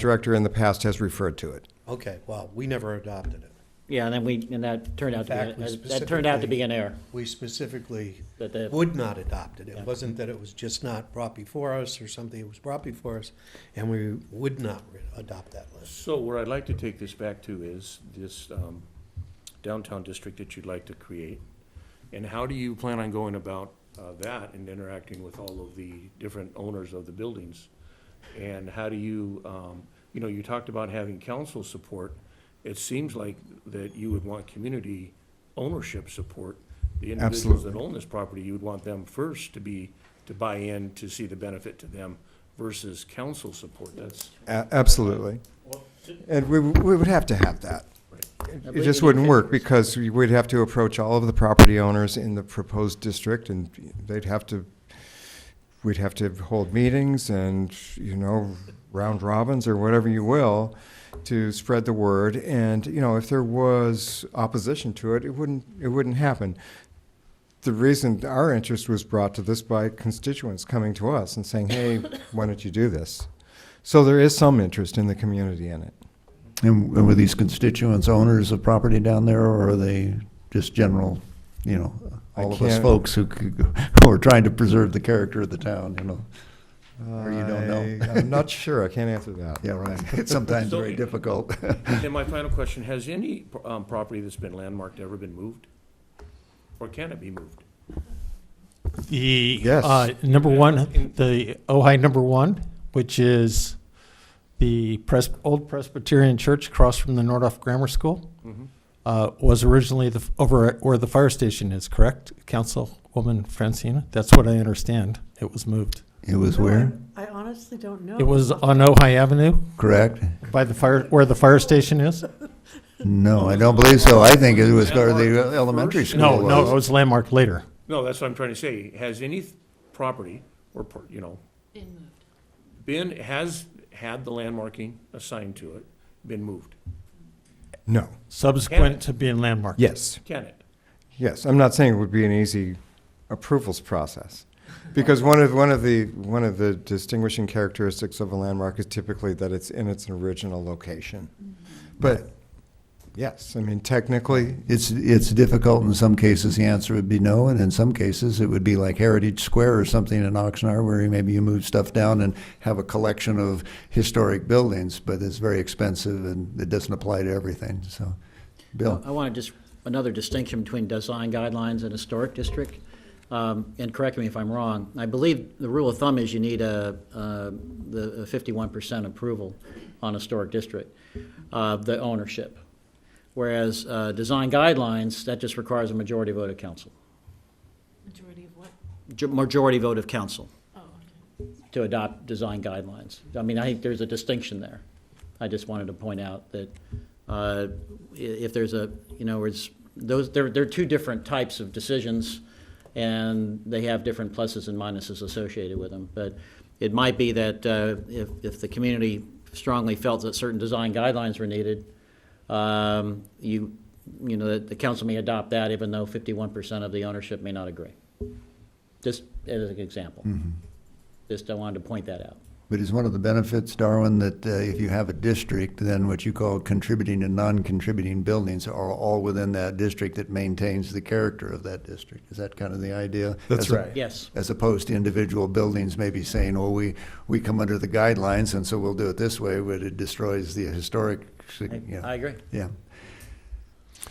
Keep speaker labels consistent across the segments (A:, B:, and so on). A: director in the past has referred to it.
B: Okay, well, we never adopted it.
C: Yeah, and then we, and that turned out to
B: fact,
C: be,
B: we
C: a- that turned out to be an error.
B: We specifically
C: That the-
B: would not adopt it. It wasn't that it was just not brought before us or something, it was brought before us, and we would not re- adopt that list.
D: So where I'd like to take this back to is this um, downtown district that you'd like to create. And how do you plan on going about uh, that and interacting with all of the different owners of the buildings? And how do you, um, you know, you talked about having council support. It seems like that you would want community ownership support. The individuals that own this property, you would want them first to be, to buy in, to see the benefit to them versus council support. That's,
A: A- Absolutely. And we, we would have to have that. It
C: believe
A: just
C: we need
A: wouldn't work
C: 50%.
A: because we would have to approach all of the property owners in the proposed district and they'd have to, we'd have to hold meetings and, you know, round robins or whatever you will to spread the word. And, you know, if there was opposition to it, it wouldn't, it wouldn't happen. The reason our interest was brought to this by constituents coming to us and saying, hey, why don't you do this? So there is some interest in the community in it.
E: And and were these constituents owners of property down there, or are they just general, you know,
A: I
E: all of us
A: can't-
E: folks who, could go- who are trying to preserve the character of the town, you know? Or you don't know?
A: I- I'm not sure. I can't answer that.
E: Yeah, right. It's sometimes very difficult.
D: And my final question, has any um, property that's been landmarked ever been moved? Or can it be moved?
F: The,
A: Yes.
F: uh, number one, the Ojai number one, which is the Pres- old Presbyterian church across from the Nordoff Grammar School, uh, was originally the, f- over at where the fire station is, correct? Councilwoman Francina? That's what I understand. It was moved.
E: It was where,
G: I honestly don't know.
F: It was on Ojai Avenue
E: correct?
F: by the fire, where the fire station is?
E: No, I don't believe so. I think it was where the elementary school
F: No,
E: was.
F: no, it was landmarked later.
D: No, that's what I'm trying to say. Has any th- property or, per- you know, been, has had the landmarking assigned to it, been moved?
A: No.
F: Subsequent to being landmarked.
A: Yes.
D: Can it?
A: Yes. I'm not saying it would be an easy approvals process. Because one of, one of the, one of the distinguishing characteristics of a landmark is typically that it's in its original location.
E: Mm-hmm.
A: But, yes, I mean, technically,
E: It's, it's difficult. In some cases, the answer would be no, and in some cases, it would be like Heritage Square or something in Oxnard, where you- maybe you move stuff down and have a collection of historic buildings, but it's very expensive and it doesn't apply to everything, so.
A: Uh,
E: Bill?
C: I want to just, another distinction between design guidelines and historic district. Um, And correct me if I'm wrong, I believe the rule of thumb is you need a, uh, the fifty-one percent approval on historic district, uh, the ownership. Whereas uh, design guidelines, that just requires a majority vote of council,
G: Majority of what?
C: Ju- majority vote of council
G: Oh,
C: to adopt design guidelines. I mean, I think there's a distinction there. I just wanted to point out that uh, i- if there's a, you know, it's, those, they're, they're two different types of decisions, and they have different pluses and minuses associated with them. But it might be that uh, if, if the community strongly felt that certain design guidelines were needed, um, you, you know, that the council may adopt that even though 51% of the ownership may not agree. Just as an example. Just I wanted to point that out.
E: But is one of the benefits, Darwin, that uh, if you have a district, then what you call contributing and non-contributing buildings are all within that district that maintains the character of that district? Is that kind of the idea?
A: That's
E: As a-
A: right.
C: Yes,
E: as opposed to individual buildings maybe saying, oh, we, we come under the guidelines, and so we'll do it this way, but it destroys the historic,
C: I I
E: yeah,
C: agree.
E: yeah.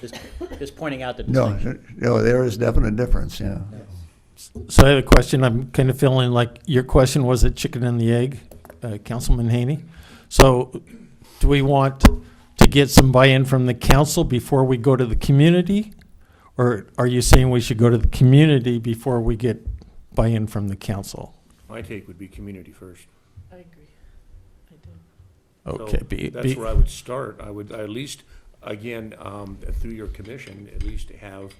C: Just, just pointing out the
E: No,
C: distinction.
E: no, there is definite difference, yeah.
F: So I have a question. I'm kind of feeling like your question was a chicken and the egg, uh, Councilman Haney. So do we want to get some buy-in from the council before we go to the community? Or are you saying we should go to the community before we get buy-in from the council?
D: My take would be community first.
G: I agree. I do.
D: So
F: Okay, be,
D: That's
F: be,
D: where I would start. I would, I at least, again, um, through your commission, at least have,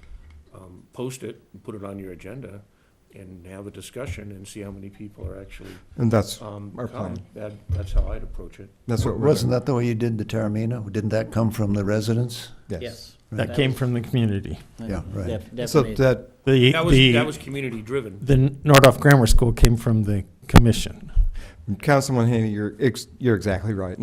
D: um, post it, and put it on your agenda, and have a discussion and see how many people are actually,
A: and that's,
D: um,
A: Our
D: come.
A: plan.
D: That, that's how I'd approach it.
A: that's what we're
E: Wasn't
A: doing.
E: that the way you did the Taramina? Didn't that come from the residents?
C: Yes.
F: that came from the community.
E: Yeah, right.
C: Def-
A: So
C: Definitely.
A: that,
F: The,
D: That was, that
F: the,
D: was community driven.
F: the Nordoff Grammar School came from the commission.
A: Councilman Haney, you're, ex- you're exactly right.